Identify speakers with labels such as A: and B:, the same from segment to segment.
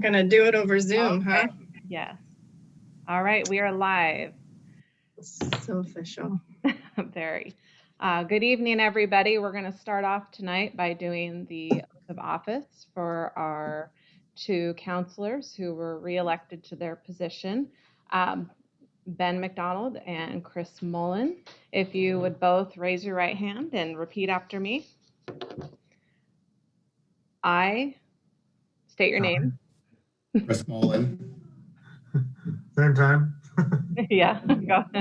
A: Gonna do it over Zoom, huh?
B: Okay. Yes. All right, we are live.
A: So official.
B: Very. Uh, Good evening, everybody. We're going to start off tonight by doing the oath of office for our two counselors who were reelected to their position, um, Ben McDonald and Chris Mullen. If you would both raise your right hand and repeat after me. I state your name.
C: Chris Mullen,
D: Same time.
B: Yeah. go.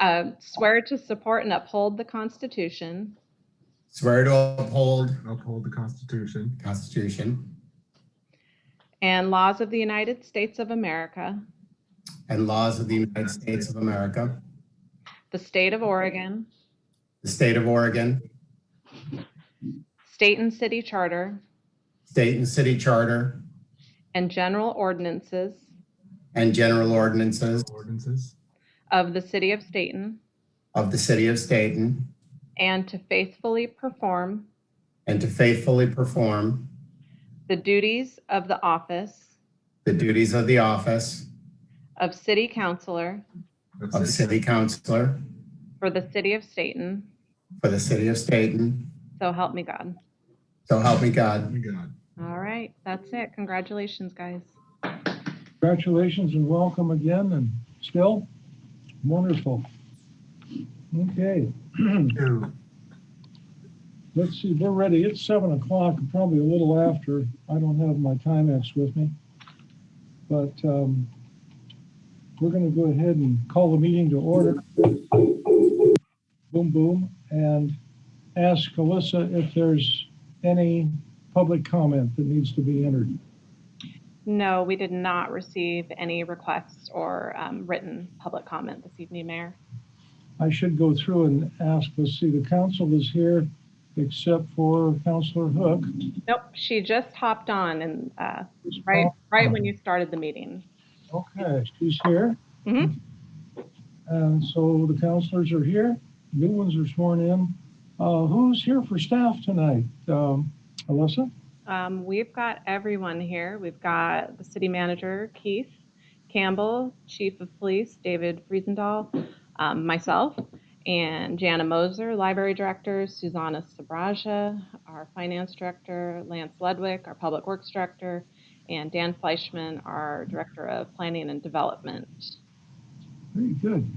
B: Um, Swear to support and uphold the Constitution
C: swear to uphold
D: And uphold the Constitution
C: the Constitution
B: and laws of the United States of America,
C: and laws of the United States of America,
B: the state of Oregon,
C: the state of Oregon,
B: state and city charter,
C: state and city charter,
B: and general ordinances
C: and general ordinances
D: ordinances
B: of the city of Staten,
C: of the city of Staten,
B: and to faithfully perform
C: and to faithfully perform
B: the duties of the office
C: the duties of the office
B: of city councillor
C: of city councillor
B: for the city of Staten.
C: for the city of Staten.
B: So help me God.
C: So help me God.
D: council. God.
B: All right, that's it. Congratulations, guys.
E: Congratulations and welcome again and still wonderful. Okay,
D: Two.
E: let's see, we're ready. It's seven o'clock, probably a little after. I don't have my Timex with me. But um, we're going to go ahead and call the meeting to order. Boom, boom, and ask Alyssa if there's any public comment that needs to be entered.
B: No, we did not receive any requests or um, written public comment this evening, Mayor.
E: I should go through and ask, let's see, the council is here except for Counselor Hook.
B: Nope, she just hopped on and uh, right right when you started the meeting.
E: Okay, she's here.
B: Mhm.
E: And so the counselors are here, new ones are sworn in. Uh, who's here for staff tonight? Um, Alyssa?
B: Um, we've got everyone here. We've got the city manager, Keith Campbell, chief of police, David Friesendahl, um, myself, and Jana Moser, library director, Susanna Sabraja, our finance director, Lance Ludwig, our public works director, and Dan Fleischman, our director of planning and development.
E: Very good.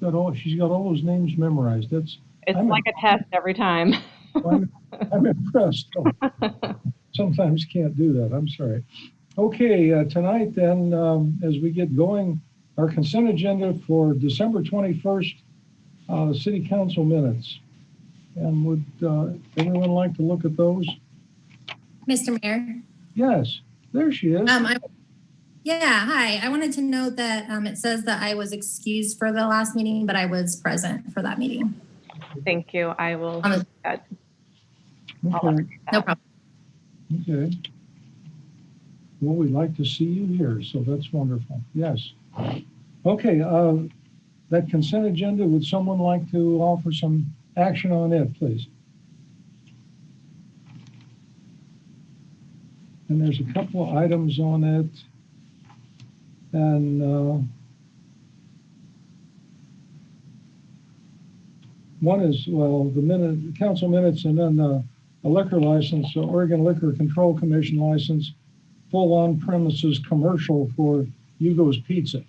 E: Got all, she's got all those names memorized. That's,
B: It's
E: I'm-
B: like a test every time.
E: I'm I'm impressed. Oh, Sometimes can't do that, I'm sorry. Okay, uh, tonight then, um, as we get going, our consent agenda for December 21st, uh, city council minutes. And would uh, anyone like to look at those?
F: Mr. Mayor,
E: Yes, there she is.
F: um, I, yeah, hi. I wanted to note that, um, it says that I was excused for the last meeting, but I was present for that meeting.
B: Thank you. I will.
F: Um,
E: Okay,
F: No problem.
E: okay. Well, we'd like to see you here, so that's wonderful, yes. Okay, uh, that consent agenda, would someone like to offer some action on it, please? And there's a couple of items on it. And uh, one is, well, the minute, council minutes and then uh, a liquor license, so Oregon Liquor Control Commission license, full on premises commercial for Hugo's Pizza.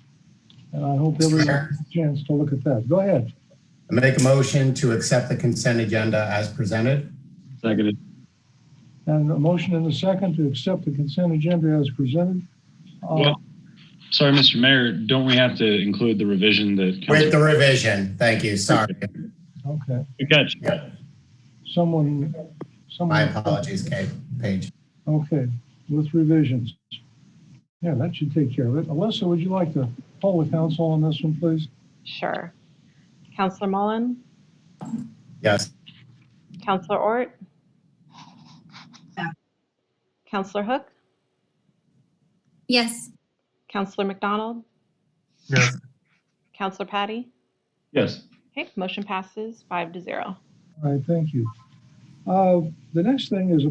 E: And I hope everyone has a chance to look at that. Go ahead.
C: I make a motion to accept the consent agenda as presented.
G: Seconded.
E: And a motion and a second to accept the consent agenda as presented. Uh,
G: Well- Sorry, Mr. Mayor, don't we have to include the revision that?
C: With the revision. Thank you. Sorry.
E: Okay,
G: Good catch.
E: someone,
C: My
E: someone,
C: apologies, Kate, Paige.
E: okay, with revisions. Yeah, that should take care of it. Alyssa, would you like to poll the council on this one, please?
B: Sure. Counselor Mullen,
C: Yes.
B: Counselor Ort? Counselor Hook,
F: Yes.
B: Counselor McDonald,
D: Yes.
B: Counselor Patty?
G: Yes.
B: Okay, motion passes five to zero.
E: All right, thank you. Uh, The next thing is a